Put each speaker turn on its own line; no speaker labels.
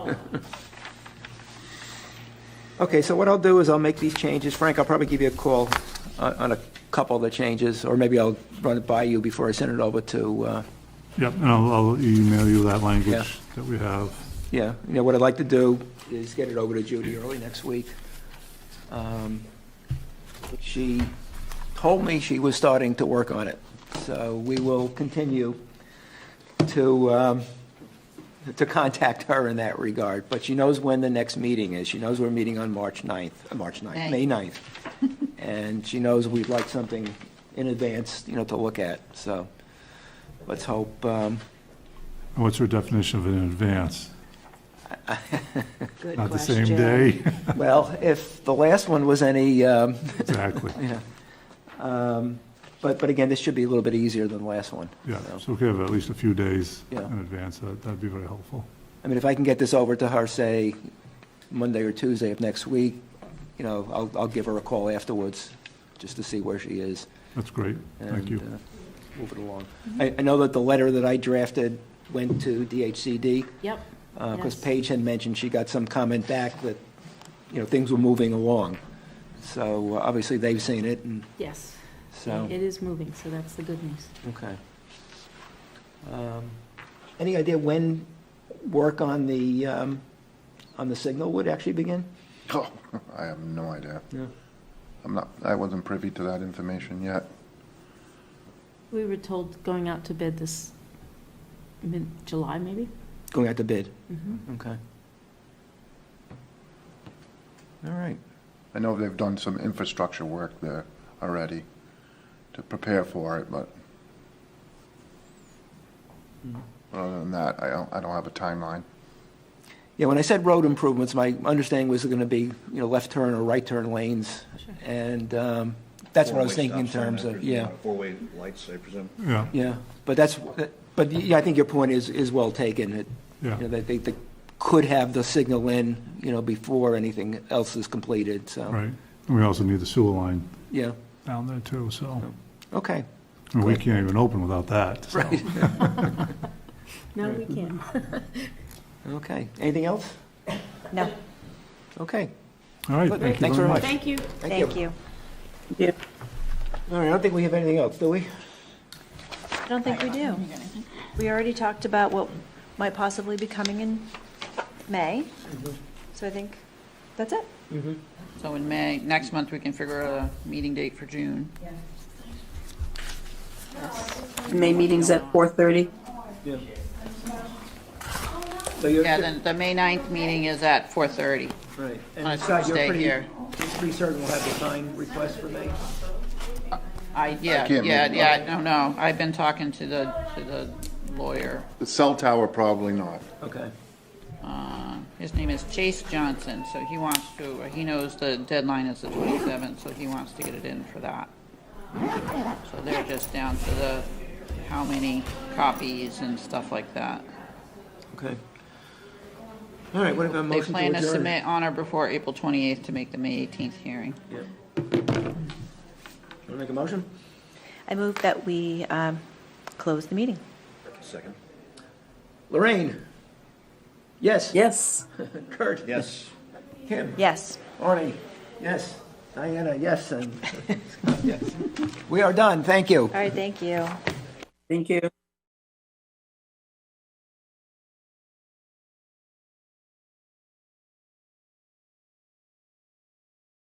Okay, so what I'll do is I'll make these changes. Frank, I'll probably give you a call on on a couple of the changes, or maybe I'll run it by you before I send it over to, uh,
Yep, and I'll, I'll email you that language
Yeah.
that we have.
yeah, you know, what I'd like to do is get it over to Judy early next week. Um, She told me she was starting to work on it, so we will continue to, um, to contact her in that regard, but she knows when the next meeting is. She knows we're meeting on March 9th, uh, March 9th, May 9th. And she knows we'd like something in advance, you know, to look at, so let's hope, um,
And What's your definition of in advance?
Good
Not the same
question.
day?
well, if the last one was any, um,
Exactly,
Yeah. Um, But, but again, this should be a little bit easier than the last one.
yeah.
so.
So we could have at least a few days in
Yeah.
advance, that, that'd be very helpful.
I mean, if I can get this over to her, say, Monday or Tuesday of next week, you know, I'll, I'll give her a call afterwards, just to see where she is.
That's great, thank you.
And uh, move it along. I, I know that the letter that I drafted went to DHCD,
Yep,
because
Yes.
uh, Paige had mentioned she got some comment back that, you know, things were moving along. So uh, obviously, they've seen it, and
yes.
so.
It is moving, so that's the good news.
Okay. Um, Any idea when work on the, um, on the signal would actually begin?
Oh, I have no idea.
No.
I'm not, I wasn't privy to that information yet.
We were told going out to bid this mid-July, maybe?
Going out to bid,
Mhm.
okay. All right,
I know they've done some infrastructure work there already to prepare for it, but other than that, I don't, I don't have a timeline.
yeah, when I said road improvements, my understanding was going to be, you know, left turn or right turn lanes,
Sure.
and um, that's what I was
Four-way
thinking in
stop sign,
terms
I
of,
presume,
yeah,
on Four-way lights, I presume.
Yeah,
yeah, but that's, but yeah, I think your point is, is well taken, It-
yeah,
you know, that they they could have the signal in, you know, before anything else is completed, so.
right. And we also need the sewer line
Yeah,
down there too, so,
okay.
and we can't even open without that, so.
Right.
No, we can't.
Okay, anything else?
No,
Okay,
All right,
Good.
thank you
Thanks very
very much.
Thank you.
thank you.
All right, I don't think we have anything else, do we?
I don't think we do. We already talked about what might possibly be coming in May, so I think that's it.
So in May, next month, we can figure out a meeting date for June.
May meeting's at 4:30.
So you're,
Yeah, then the May 9th meeting is at 4:30
right.
on a
And Scott, you're
Tuesday
pretty,
here.
you're pretty certain we'll have the sign request for May?
I, yeah,
can't
yeah,
make it.
yeah, I don't know. I've been talking to the, to the lawyer.
The cell tower, probably not.
Okay,
Uh, His name is Chase Johnson, so he wants to, he knows the deadline is the 27th, so he wants to get it in for that. So they're just down to the, how many copies and stuff like that.
okay. All right, what about
They
motion to adjourn?
plan to submit on or before April 28th to make the May 18th hearing.
Yeah. Want to make a motion?
I move that we um, close the meeting.
Second.
Lorraine? Yes?
Yes.
Kurt?
Yes.
Kim?
Yes.
Arnie? Yes? Diana, yes, and, yes. We are done, thank you.
All right, thank you.
Thank you.